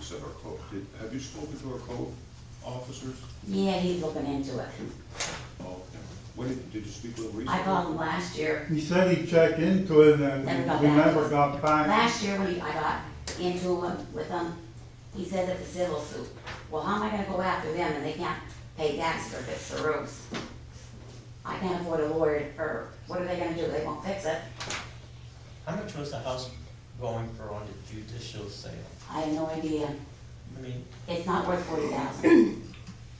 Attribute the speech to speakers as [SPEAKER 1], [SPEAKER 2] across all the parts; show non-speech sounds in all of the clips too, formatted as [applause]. [SPEAKER 1] said our code, did, have you spoken to our code officers?
[SPEAKER 2] Yeah, he's looking into it.
[SPEAKER 1] Oh, okay. When, did did you speak with them recently?
[SPEAKER 2] I called him last year.
[SPEAKER 3] He said he checked into it and
[SPEAKER 2] Never got
[SPEAKER 3] we
[SPEAKER 2] back.
[SPEAKER 3] never got back.
[SPEAKER 2] Last year, when I got into him with him, he said that the civil suit, well, how am I gonna go after them and they can't pay tax for this or roofs? I can't afford a lawyer, or what are they gonna do? They won't fix it.
[SPEAKER 4] How much was the house going for on the judicial sale?
[SPEAKER 2] I have no idea.
[SPEAKER 4] I mean,
[SPEAKER 2] It's not worth forty thousand.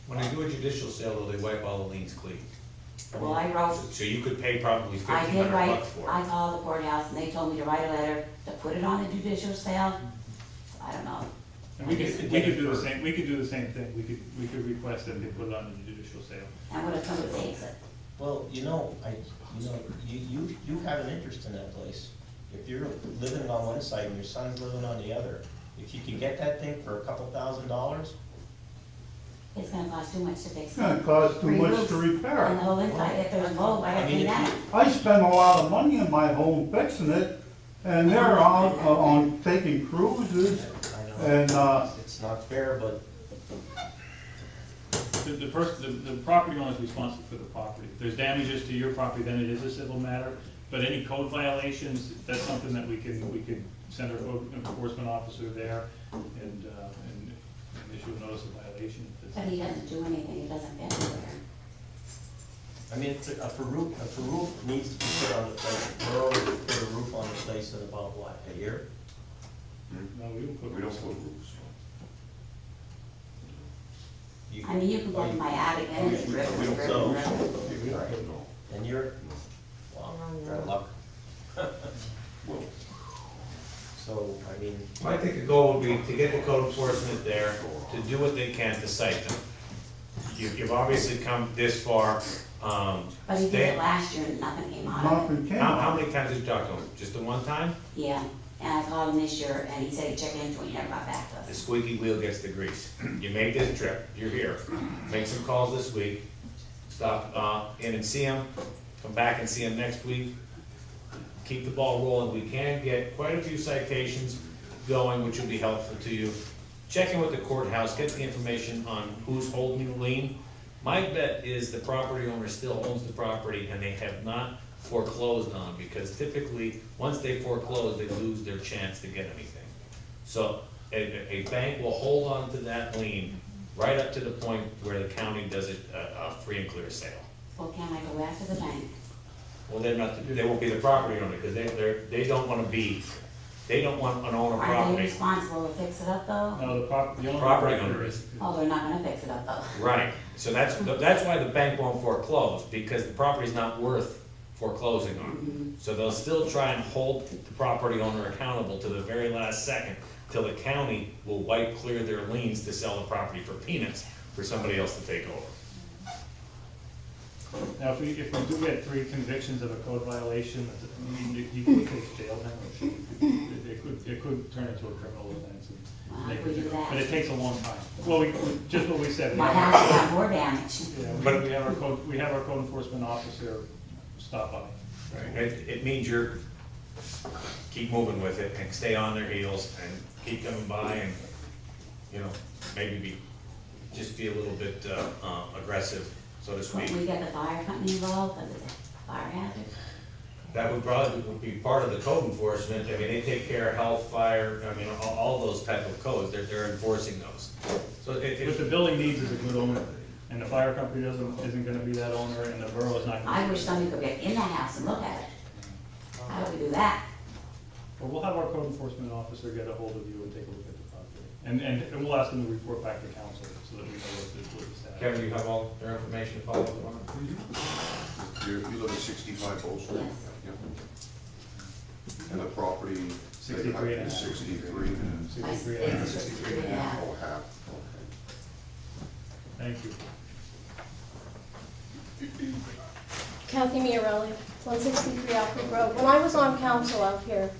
[SPEAKER 5] When they do a judicial sale, though, they wipe all the liens clean.
[SPEAKER 2] Well, I wrote,
[SPEAKER 5] So you could pay probably
[SPEAKER 2] I
[SPEAKER 5] fifteen
[SPEAKER 2] did
[SPEAKER 5] hundred
[SPEAKER 2] write,
[SPEAKER 5] bucks for
[SPEAKER 2] I
[SPEAKER 5] it.
[SPEAKER 2] called the courthouse and they told me to write a letter to put it on a judicial sale. I don't know.
[SPEAKER 6] And we
[SPEAKER 4] You could
[SPEAKER 6] could, we
[SPEAKER 4] get it
[SPEAKER 6] could do the
[SPEAKER 4] for-
[SPEAKER 6] same, we could do the same thing, we could, we could request that they put it on the judicial sale.
[SPEAKER 2] And what if somebody takes it?
[SPEAKER 4] well, you know, I, you know, you, you, you have an interest in that place. If you're living on one side and your son's living on the other, if you could get that thing for a couple thousand dollars,
[SPEAKER 2] It's gonna cost too much to fix
[SPEAKER 3] It's
[SPEAKER 2] it.
[SPEAKER 3] gonna cost too
[SPEAKER 2] Free
[SPEAKER 3] much
[SPEAKER 2] roofs
[SPEAKER 3] to
[SPEAKER 2] And the
[SPEAKER 3] repair.
[SPEAKER 2] whole inside, if there's mold, why
[SPEAKER 4] I
[SPEAKER 2] have
[SPEAKER 4] mean,
[SPEAKER 2] you
[SPEAKER 4] if
[SPEAKER 2] that?
[SPEAKER 4] you,
[SPEAKER 3] I spent a lot of money in my home fixing it and they're out uh, on taking cruises
[SPEAKER 4] I know,
[SPEAKER 3] and, uh,
[SPEAKER 4] it's not fair, but
[SPEAKER 6] The, the person, the, the property owner is responsible for the property. If there's damages to your property, then it is a civil matter, but any code violations, that's something that we can, we can send our code enforcement officer there and, uh, and and issue a notice of violation. if
[SPEAKER 2] But
[SPEAKER 6] it's-
[SPEAKER 2] he doesn't do anything, he doesn't get anywhere.
[SPEAKER 4] I mean, it's a, a roof, a roof needs to be put on the place. Borough put a roof on the place in about what, a year?
[SPEAKER 6] No, we don't put.
[SPEAKER 1] We don't put roofs
[SPEAKER 4] You-
[SPEAKER 2] I mean, you can go to my attic and it's
[SPEAKER 1] on.
[SPEAKER 2] ripped,
[SPEAKER 1] Oh, We
[SPEAKER 2] ripped,
[SPEAKER 1] don't
[SPEAKER 2] ripped.
[SPEAKER 1] put roofs
[SPEAKER 2] ripped.
[SPEAKER 1] on. Yeah, we don't put no.
[SPEAKER 4] And you're, well, you're out of luck. [laughs]
[SPEAKER 1] Well,
[SPEAKER 4] So, I mean,
[SPEAKER 5] I think the goal would be to get the code enforcement there, to do what they can to cite them. You've, you've obviously come this far, um,
[SPEAKER 2] But he did
[SPEAKER 5] they-
[SPEAKER 2] it last year and nothing came out of it.
[SPEAKER 3] nothing came.
[SPEAKER 5] how, how many times did you talk to them? Just the one time?
[SPEAKER 2] Yeah, and I called him this year and he said he checked into it, he never got back to
[SPEAKER 5] The
[SPEAKER 2] us.
[SPEAKER 5] squeaky wheel gets the grease. [clears throat] You made this trip, you're here. Make some calls this week, stop, uh, in and see them, come back and see them next week. Keep the ball rolling. We can get quite a few citations going, which will be helpful to you. Check in with the courthouse, get the information on who's holding the lien. My bet is the property owner still owns the property and they have not foreclosed on, because typically, once they foreclose, they lose their chance to get anything. So a, a bank will hold on to that lien right up to the point where the county does it, a, a free and clear sale.
[SPEAKER 2] Well, can I go after the bank?
[SPEAKER 5] Well, they're not, they won't be the property owner, because they, they're, they don't wanna be, they don't want an owner
[SPEAKER 2] Are they
[SPEAKER 5] property.
[SPEAKER 2] responsible to fix it up though?
[SPEAKER 6] No, the property, the owner.
[SPEAKER 5] Property owner is.
[SPEAKER 2] Oh, they're not gonna fix it up though.
[SPEAKER 5] Right, so that's, that's why the bank won't foreclose, because the property's not worth foreclosing on. So they'll still try and hold the property owner accountable to the very last second, till the county will wipe clear their liens to sell the property for peanuts for somebody else to take over.
[SPEAKER 6] Now, if we, if we do get three convictions of a code violation, I mean, you- you could face jail time. It it could, it could turn into a criminal offense. and
[SPEAKER 2] Wow,
[SPEAKER 6] they
[SPEAKER 2] we do
[SPEAKER 6] could-
[SPEAKER 2] Ah, that.
[SPEAKER 6] But it takes a long time. Well, we, we- just what we said. we
[SPEAKER 2] My
[SPEAKER 6] have-
[SPEAKER 2] house got more damage.
[SPEAKER 6] Yeah, we-
[SPEAKER 5] But-
[SPEAKER 6] we have our code, we have our code enforcement officer stop by.
[SPEAKER 5] It, it means you're, keep moving with it and stay on their heels and keep coming by and, you know, maybe be, just be a little bit, uh, uh, aggressive, so to speak.
[SPEAKER 2] When we get the fire company involved, cause it's a fire hazard.
[SPEAKER 5] That would probably would be part of the code enforcement, I mean, they take care of health, fire, I mean, all, all those type of codes, they're, they're enforcing those. So it,
[SPEAKER 6] What the
[SPEAKER 5] it,
[SPEAKER 6] building needs is a good owner, and the fire company doesn't, isn't gonna be that owner, and the borough is not.
[SPEAKER 2] I
[SPEAKER 6] gonna be
[SPEAKER 2] wish
[SPEAKER 6] that.
[SPEAKER 2] somebody could get in the house and look at it. How do we do that?
[SPEAKER 6] But we'll have our code enforcement officer get a hold of you and take a look at the property. And, and, and we'll ask them to report back to council, so that we know what the, what the status. is.
[SPEAKER 5] Kevin, you have all their information to follow up on?
[SPEAKER 1] You're, you live at sixty-five Old Street?
[SPEAKER 2] Yes.
[SPEAKER 1] And the property? they got
[SPEAKER 6] 63 and a half.
[SPEAKER 1] Sixty-three and.
[SPEAKER 2] I
[SPEAKER 6] Sixty-three
[SPEAKER 2] think
[SPEAKER 6] and a
[SPEAKER 2] it's
[SPEAKER 6] half.
[SPEAKER 2] sixty-three and a half.
[SPEAKER 1] Oh, half, okay.
[SPEAKER 6] Thank you.
[SPEAKER 7] Kathy Miarelli, 163 Alfred Road. When I was on council out here,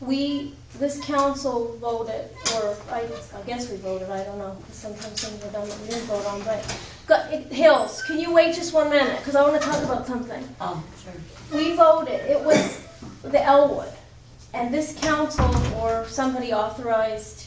[SPEAKER 7] we, this council voted, or I I guess we voted, I don't know, 'cause sometimes things are done that we didn't vote on, but, Go- it- Hills, can you wait just one minute? Because I want to talk about something
[SPEAKER 2] Oh, sure.
[SPEAKER 7] we voted, it was the Elwood. And this council or somebody authorized